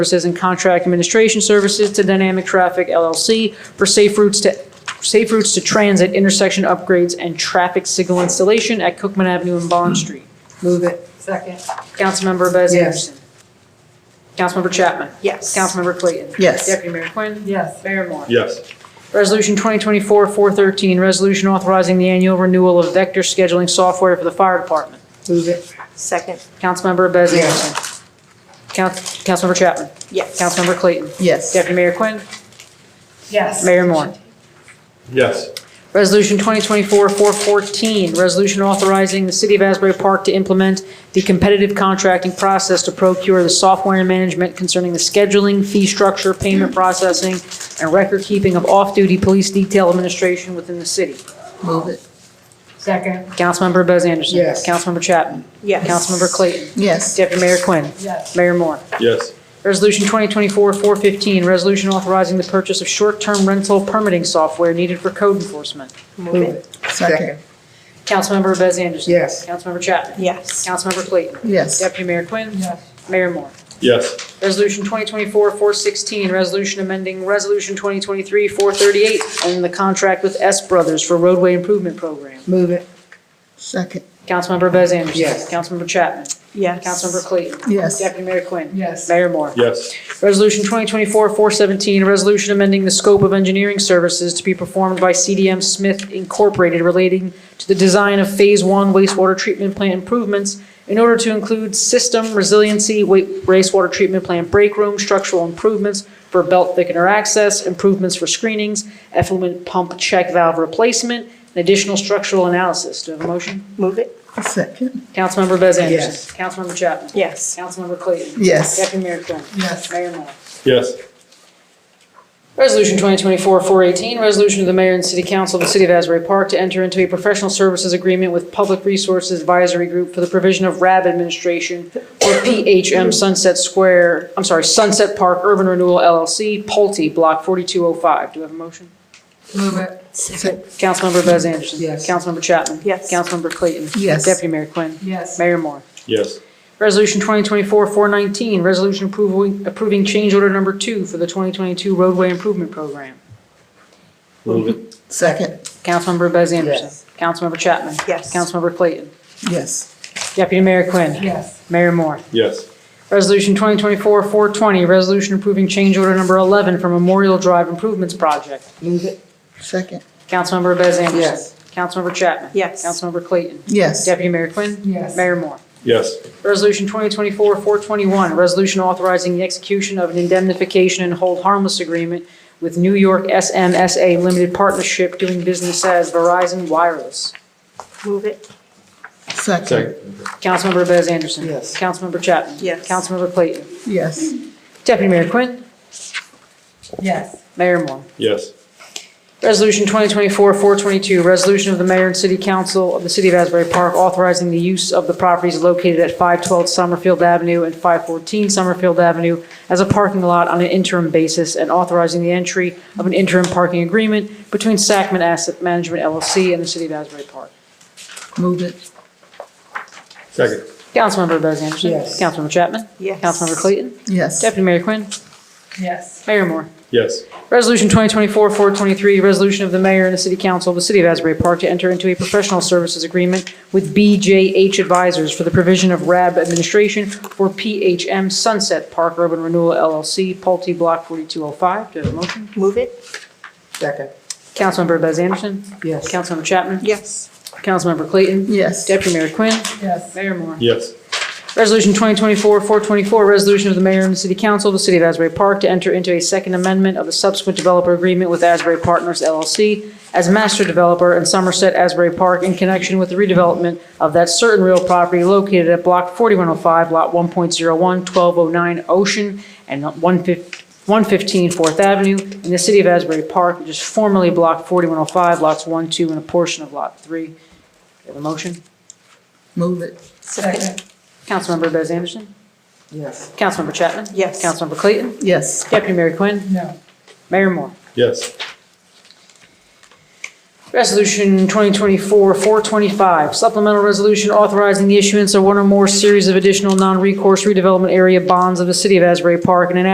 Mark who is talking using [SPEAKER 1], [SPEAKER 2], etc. [SPEAKER 1] Services and Contract Administration Services to Dynamic Traffic LLC for safe routes to, safe routes to transit, intersection upgrades, and traffic signal installation at Cookman Avenue and Bond Street.
[SPEAKER 2] Move it. Second.
[SPEAKER 1] Councilmember Bez
[SPEAKER 2] Yes.
[SPEAKER 1] Anderson. Councilmember Chapman.
[SPEAKER 2] Yes.
[SPEAKER 1] Councilmember Clayton.
[SPEAKER 3] Yes.
[SPEAKER 1] Deputy Mayor Quinn.
[SPEAKER 2] Yes.
[SPEAKER 1] Mayor Moore.
[SPEAKER 4] Yes.
[SPEAKER 1] Resolution 2024-413, resolution authorizing the annual renewal of vector scheduling software for the fire department.
[SPEAKER 2] Move it.
[SPEAKER 3] Second.
[SPEAKER 1] Councilmember Bez
[SPEAKER 2] Yes.
[SPEAKER 1] Anderson. Council- Councilmember Chapman.
[SPEAKER 3] Yes.
[SPEAKER 1] Councilmember Clayton.
[SPEAKER 3] Yes.
[SPEAKER 1] Deputy Mayor Quinn.
[SPEAKER 2] Yes.
[SPEAKER 1] Mayor Moore.
[SPEAKER 4] Yes.
[SPEAKER 1] Resolution 2024-414, resolution authorizing the City of Asbury Park to implement the competitive contracting process to procure the software and management concerning the scheduling, fee structure, payment processing, and record-keeping of off-duty police detail administration within the city.
[SPEAKER 3] Move it.
[SPEAKER 2] Second.
[SPEAKER 1] Councilmember Bez Anderson.
[SPEAKER 2] Yes.
[SPEAKER 1] Councilmember Chapman.
[SPEAKER 3] Yes.
[SPEAKER 1] Councilmember Clayton.
[SPEAKER 3] Yes.
[SPEAKER 1] Deputy Mayor Quinn.
[SPEAKER 2] Yes.
[SPEAKER 1] Mayor Moore.
[SPEAKER 4] Yes.
[SPEAKER 1] Resolution 2024-415, resolution authorizing the purchase of short-term rental permitting software needed for code enforcement.
[SPEAKER 3] Move it. Second.
[SPEAKER 1] Councilmember Bez Anderson.
[SPEAKER 2] Yes.
[SPEAKER 1] Councilmember Chapman.
[SPEAKER 3] Yes.
[SPEAKER 1] Councilmember Clayton.
[SPEAKER 3] Yes.
[SPEAKER 1] Deputy Mayor Quinn.
[SPEAKER 2] Yes.
[SPEAKER 1] Mayor Moore.
[SPEAKER 4] Yes.
[SPEAKER 1] Resolution 2024-416, resolution amending Resolution 2023-438 and the contract with S Brothers for roadway improvement program.
[SPEAKER 2] Move it.
[SPEAKER 3] Second.
[SPEAKER 1] Councilmember Bez Anderson.
[SPEAKER 2] Yes.
[SPEAKER 1] Councilmember Chapman.
[SPEAKER 3] Yes.
[SPEAKER 1] Councilmember Clayton.
[SPEAKER 3] Yes.
[SPEAKER 1] Deputy Mayor Quinn.
[SPEAKER 2] Yes.
[SPEAKER 1] Mayor Moore.
[SPEAKER 4] Yes.
[SPEAKER 1] Resolution 2024-417, a resolution amending the scope of engineering services to be performed by CDM Smith Incorporated relating to the design of Phase 1 wastewater treatment plant improvements in order to include system resiliency, wa- wastewater treatment plant break room, structural improvements for belt thickener access, improvements for screenings, effluent pump check valve replacement, and additional structural analysis. Do I have a motion?
[SPEAKER 3] Move it. Second.
[SPEAKER 1] Councilmember Bez Anderson.
[SPEAKER 2] Yes.
[SPEAKER 1] Councilmember Chapman.
[SPEAKER 3] Yes.
[SPEAKER 1] Councilmember Clayton.
[SPEAKER 3] Yes.
[SPEAKER 1] Deputy Mayor Quinn.
[SPEAKER 2] Yes.
[SPEAKER 1] Mayor Moore.
[SPEAKER 4] Yes.
[SPEAKER 1] Resolution 2024-418, resolution of the mayor and city council of the city of Asbury Park to enter into a professional services agreement with Public Resources Advisory Group for the provision of RAB administration for PHM Sunset Square, I'm sorry, Sunset Park Urban Renewal LLC, Pulte, Block 4205. Do we have a motion?
[SPEAKER 2] Move it.
[SPEAKER 3] Second.
[SPEAKER 1] Councilmember Bez Anderson.
[SPEAKER 2] Yes.
[SPEAKER 1] Councilmember Chapman.
[SPEAKER 3] Yes.
[SPEAKER 1] Councilmember Clayton.
[SPEAKER 3] Yes.
[SPEAKER 1] Deputy Mayor Quinn.
[SPEAKER 2] Yes.
[SPEAKER 1] Mayor Moore.
[SPEAKER 4] Yes.
[SPEAKER 1] Resolution 2024-419, resolution approving, approving change order number two for the 2022 roadway improvement program.
[SPEAKER 4] Move it.
[SPEAKER 3] Second.
[SPEAKER 1] Councilmember Bez Anderson.
[SPEAKER 2] Yes.
[SPEAKER 1] Councilmember Chapman.
[SPEAKER 3] Yes.
[SPEAKER 1] Councilmember Clayton.
[SPEAKER 3] Yes.
[SPEAKER 1] Deputy Mayor Quinn.
[SPEAKER 2] Yes.
[SPEAKER 1] Mayor Moore.
[SPEAKER 4] Yes.
[SPEAKER 1] Resolution 2024-420, resolution approving change order number 11 for Memorial Drive Improvements Project.
[SPEAKER 2] Move it.
[SPEAKER 3] Second.
[SPEAKER 1] Councilmember Bez Anderson.
[SPEAKER 2] Yes.
[SPEAKER 1] Councilmember Chapman.
[SPEAKER 3] Yes.
[SPEAKER 1] Councilmember Clayton.
[SPEAKER 3] Yes.
[SPEAKER 1] Deputy Mayor Quinn.
[SPEAKER 2] Yes.
[SPEAKER 1] Mayor Moore.
[SPEAKER 4] Yes.
[SPEAKER 1] Resolution 2024-421, resolution authorizing the execution of an indemnification and hold harmless agreement with New York SMSA Limited Partnership doing business as Verizon Wireless.
[SPEAKER 3] Move it.
[SPEAKER 4] Second.
[SPEAKER 3] Second.
[SPEAKER 1] Councilmember Bez Anderson.
[SPEAKER 2] Yes.
[SPEAKER 1] Councilmember Chapman.
[SPEAKER 3] Yes.
[SPEAKER 1] Councilmember Clayton.
[SPEAKER 3] Yes.
[SPEAKER 1] Deputy Mayor Quinn.
[SPEAKER 2] Yes.
[SPEAKER 1] Mayor Moore.
[SPEAKER 4] Yes.
[SPEAKER 1] Resolution 2024-422, resolution of the mayor and city council of the city of Asbury Park authorizing the use of the properties located at 512 Summerfield Avenue and 514 Summerfield Avenue as a parking lot on an interim basis and authorizing the entry of an interim parking agreement between Sacman Asset Management LLC and the city of Asbury Park.
[SPEAKER 3] Move it.
[SPEAKER 4] Second.
[SPEAKER 1] Councilmember Bez Anderson.
[SPEAKER 2] Yes.
[SPEAKER 1] Councilmember Chapman.
[SPEAKER 3] Yes.
[SPEAKER 1] Councilmember Clayton.
[SPEAKER 3] Yes.
[SPEAKER 1] Deputy Mayor Quinn.
[SPEAKER 2] Yes.
[SPEAKER 1] Mayor Moore.
[SPEAKER 4] Yes.
[SPEAKER 1] Resolution 2024-423, resolution of the mayor and the city council of the city of Asbury Park to enter into a professional services agreement with BJH Advisors for the provision of RAB administration for PHM Sunset Park Urban Renewal LLC, Pulte Block 4205. Do I have a motion?
[SPEAKER 3] Move it.
[SPEAKER 2] Second.
[SPEAKER 1] Councilmember Bez Anderson.
[SPEAKER 2] Yes.
[SPEAKER 1] Councilmember Chapman.
[SPEAKER 3] Yes.
[SPEAKER 1] Councilmember Clayton.
[SPEAKER 3] Yes.
[SPEAKER 1] Deputy Mayor Quinn.
[SPEAKER 2] Yes.
[SPEAKER 1] Mayor Moore.
[SPEAKER 4] Yes.
[SPEAKER 1] Resolution 2024-424, resolution of the mayor and the city council of the city of Asbury Park to enter into a second amendment of the subsequent developer agreement with Asbury Partners LLC as master developer in Somerset Asbury Park in connection with the redevelopment of that certain real property located at Block 4105, Lot 1.01, 1209 Ocean, and 115 115 Fourth Avenue in the city of Asbury Park, which is formerly Block 4105, Lots 1, 2, and a portion of Lot 3. Do you have a motion?
[SPEAKER 3] Move it.
[SPEAKER 2] Second.
[SPEAKER 1] Councilmember Bez Anderson?
[SPEAKER 2] Yes.
[SPEAKER 1] Councilmember Chapman?
[SPEAKER 3] Yes.
[SPEAKER 1] Councilmember Clayton?
[SPEAKER 3] Yes.
[SPEAKER 1] Deputy Mayor Quinn?
[SPEAKER 2] No.
[SPEAKER 1] Mayor Moore?
[SPEAKER 4] Yes.
[SPEAKER 1] Resolution 2024-425, supplemental resolution authorizing the issuance of one or more series of additional non-recourse redevelopment area bonds of the city of Asbury Park in an